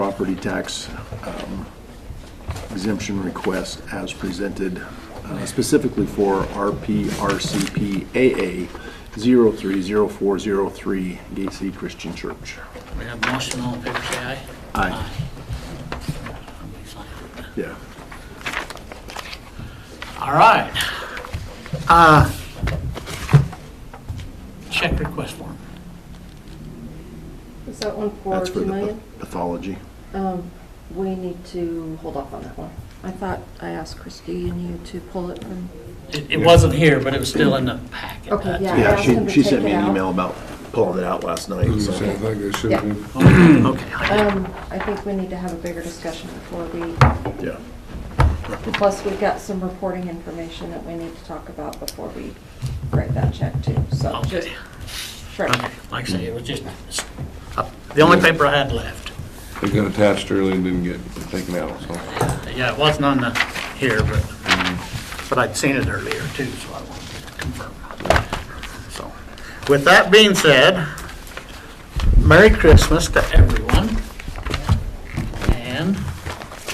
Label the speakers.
Speaker 1: property tax um, exemption request as presented uh, specifically for RPRCPAA 030403 Gacy Christian Church.
Speaker 2: We have a motion, all in favor, say aye.
Speaker 1: Aye.
Speaker 2: Somebody sign it.
Speaker 1: Yeah.
Speaker 2: All right. Uh, Check request form.
Speaker 3: Is that one for
Speaker 1: That's for
Speaker 3: two
Speaker 1: the
Speaker 3: million?
Speaker 1: pathology.
Speaker 3: We need to hold off on that one. I thought I asked Christie and you to pull it from,
Speaker 2: It, it wasn't here, but it was still in the packet.
Speaker 3: Okay, yeah. I
Speaker 1: Yeah,
Speaker 3: asked him
Speaker 1: she, she
Speaker 3: to take
Speaker 1: sent
Speaker 3: it
Speaker 1: me an
Speaker 3: out.
Speaker 1: email about pulling it out last night, so.
Speaker 4: Sounds like it should
Speaker 3: Yeah.
Speaker 4: be.
Speaker 2: Okay, I-
Speaker 3: um, I think we need to have a bigger discussion before we,
Speaker 1: Yeah.
Speaker 3: plus we've got some reporting information that we need to talk about before we write that check too, so just,
Speaker 2: okay.
Speaker 3: sure.
Speaker 2: Okay, Like I say, it was just, it's, uh, the only paper I had left.
Speaker 4: It got attached early and didn't get taken out, so.
Speaker 2: Yeah, it wasn't on the, here, but, but I'd seen it earlier too, so I wanted to confirm. So, with that being said, Merry Christmas to everyone.